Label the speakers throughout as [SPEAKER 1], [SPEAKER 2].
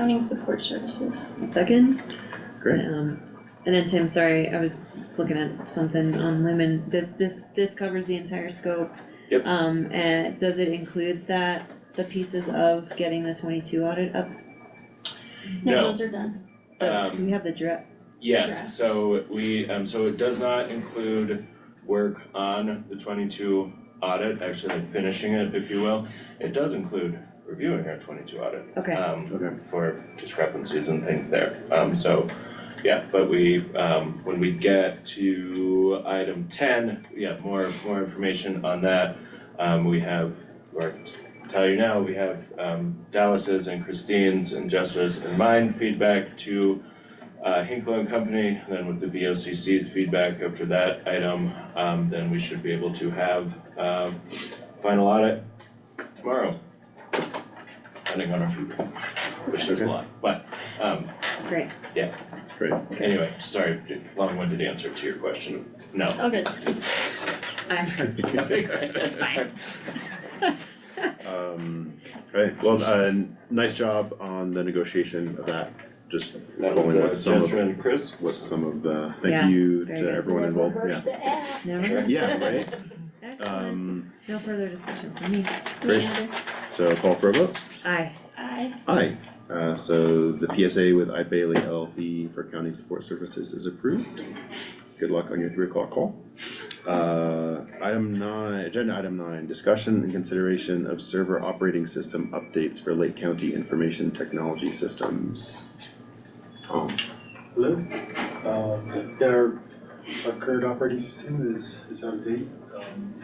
[SPEAKER 1] Accounting support services.
[SPEAKER 2] A second.
[SPEAKER 3] Great.
[SPEAKER 2] Um, and then Tim, sorry, I was looking at something on Lumen, this, this, this covers the entire scope.
[SPEAKER 3] Yep.
[SPEAKER 2] Um, and does it include that, the pieces of getting the twenty-two audit up?
[SPEAKER 1] No,
[SPEAKER 3] No.
[SPEAKER 1] those are done.
[SPEAKER 2] The- Cause
[SPEAKER 3] Um,
[SPEAKER 2] we have the draft,
[SPEAKER 1] Yeah.
[SPEAKER 3] Yes, so we, um, so it does not include work on the twenty-two audit, actually like finishing it, if you will. It does include reviewing our twenty-two audit,
[SPEAKER 2] okay,
[SPEAKER 3] um,
[SPEAKER 4] Okay.
[SPEAKER 3] for discrepancies and things there, um, so. Yeah, but we, um, when we get to item ten, we have more, more information on that. Um, we have, or tell you now, we have, um, Dallas's and Christine's and Jessica's and mine feedback to uh, Hinkle and Company, and then with the VOCC's feedback after that item, um, then we should be able to have, um, final audit tomorrow. Depending on our feedback, which there's a lot, but, um,
[SPEAKER 2] great,
[SPEAKER 3] anyway, sorry, long-winded answer to your question, no.
[SPEAKER 1] Okay,
[SPEAKER 2] I'm,
[SPEAKER 3] That's
[SPEAKER 2] fine.
[SPEAKER 4] Um, okay, well, uh, nice job on the negotiation of that, just
[SPEAKER 3] That
[SPEAKER 4] Going with
[SPEAKER 3] was
[SPEAKER 4] some
[SPEAKER 3] uh,
[SPEAKER 4] of-
[SPEAKER 3] Jessica and Chris.
[SPEAKER 4] what some of the,
[SPEAKER 2] Yeah,
[SPEAKER 4] thank you
[SPEAKER 2] very
[SPEAKER 4] to
[SPEAKER 2] good.
[SPEAKER 4] everyone involved, yeah.
[SPEAKER 2] no,
[SPEAKER 4] Yeah, right,
[SPEAKER 2] excellent,
[SPEAKER 4] um,
[SPEAKER 2] no further discussion for me,
[SPEAKER 4] Great.
[SPEAKER 1] Leander,
[SPEAKER 4] so call for a vote,
[SPEAKER 2] aye,
[SPEAKER 1] aye.
[SPEAKER 4] aye. Uh, so the PSA with I Bailey LLP for county support services is approved. Good luck on your three o'clock call. Uh, item nine, agenda item nine, discussion and consideration of server operating system updates for Lake County Information Technology Systems. Tom.
[SPEAKER 5] Hello, um, yeah, our, our current operating system is, is out of date, um,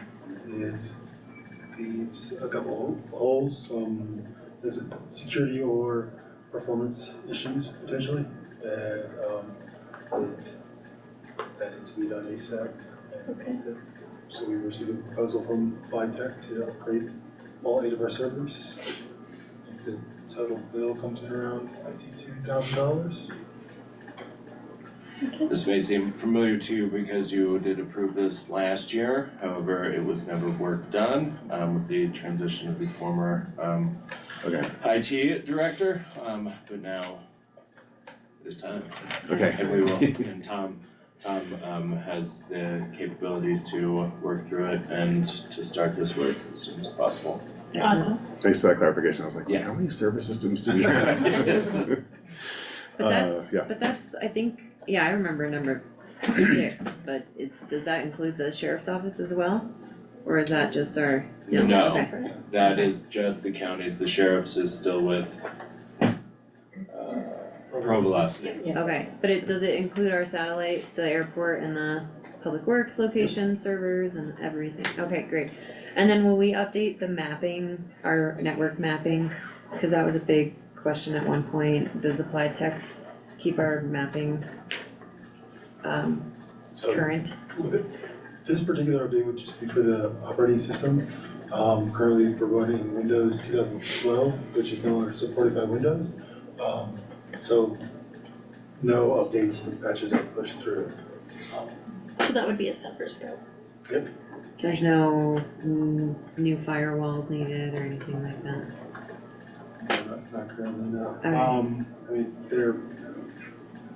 [SPEAKER 5] it leaves a couple hol- holes, um, there's a security or performance issues potentially, and, um, that, that needs to be done ASAP. and
[SPEAKER 1] Okay.
[SPEAKER 5] that- So we received a proposal from Vitech to upgrade all eight of our servers. I think The total bill comes in around fifty-two thousand dollars.
[SPEAKER 3] This may seem familiar to you because you did approve this last year, however, it was never work done, um, with the transition of the former, um,
[SPEAKER 4] Okay,
[SPEAKER 3] IT director, um, but now it is time.
[SPEAKER 4] okay.
[SPEAKER 3] And we will, and Tom, Tom, um, has the capability to work through it and to start this work as soon as possible.
[SPEAKER 2] excellent,
[SPEAKER 4] Thanks for that clarification, I was like,
[SPEAKER 3] Yeah.
[SPEAKER 4] how many server systems do we have?
[SPEAKER 2] But
[SPEAKER 4] Uh,
[SPEAKER 2] that's,
[SPEAKER 4] yeah.
[SPEAKER 2] but that's, I think, yeah, I remember number six, but is, does that include the sheriff's office as well? Or is that just our?
[SPEAKER 3] No.
[SPEAKER 2] is that separate?
[SPEAKER 3] That is just the counties, the sheriff's is still with uh, Pro Velocity.
[SPEAKER 2] Okay, but it, does it include our satellite, the airport and the public works location, servers and everything? Okay, great. And then will we update the mapping, our network mapping? Cause that was a big question at one point. Does Applied Tech keep our mapping um
[SPEAKER 5] So
[SPEAKER 2] current?
[SPEAKER 5] This particular update would just be for the operating system. Um, currently providing Windows two thousand twelve, which is no longer supported by Windows. Um, so no updates and patches are pushed through.
[SPEAKER 1] So that would be a separate scope.
[SPEAKER 2] There's no mm, new firewalls needed or anything like that.
[SPEAKER 5] Not not currently, no.
[SPEAKER 2] Okay.
[SPEAKER 5] Um, I mean, there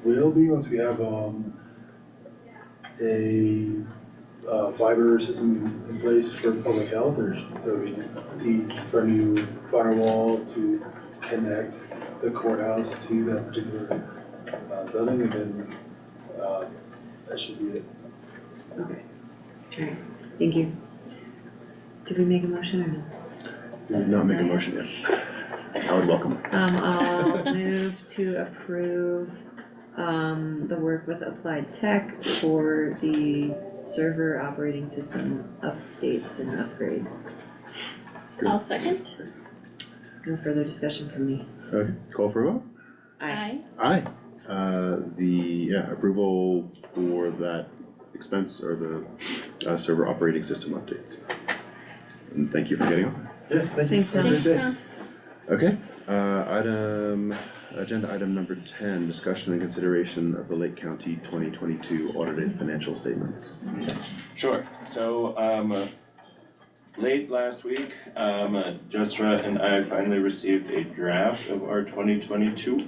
[SPEAKER 5] will be once we have, um, a, uh, fiber system in place for public health, there's, there will be need for a new firewall to connect the courthouse to that particular, uh, building, and then, uh, that should be it.
[SPEAKER 2] Okay. Alright, thank you. Did we make a motion or no?
[SPEAKER 4] We did Not make a motion yet. I would welcome.
[SPEAKER 2] Um, I'll move to approve, um, the work with Applied Tech for the server operating system updates and upgrades.
[SPEAKER 1] I'll second,
[SPEAKER 2] No further discussion from me.
[SPEAKER 4] Okay, call for a vote?
[SPEAKER 2] Aye.
[SPEAKER 1] aye.
[SPEAKER 4] Aye. Uh, the, yeah, approval for that expense or the, uh, server operating system updates. And thank you for getting on.
[SPEAKER 5] Yeah, thank you.
[SPEAKER 2] Thanks,
[SPEAKER 5] Have
[SPEAKER 2] Tom.
[SPEAKER 5] a great
[SPEAKER 1] Thanks,
[SPEAKER 5] day.
[SPEAKER 1] Tom.
[SPEAKER 4] Okay, uh, item, agenda item number ten, discussion and consideration of the Lake County twenty twenty-two audited financial statements.
[SPEAKER 3] Sure, so, um, uh, late last week, um, uh, Jessra and I finally received a draft of our twenty twenty-two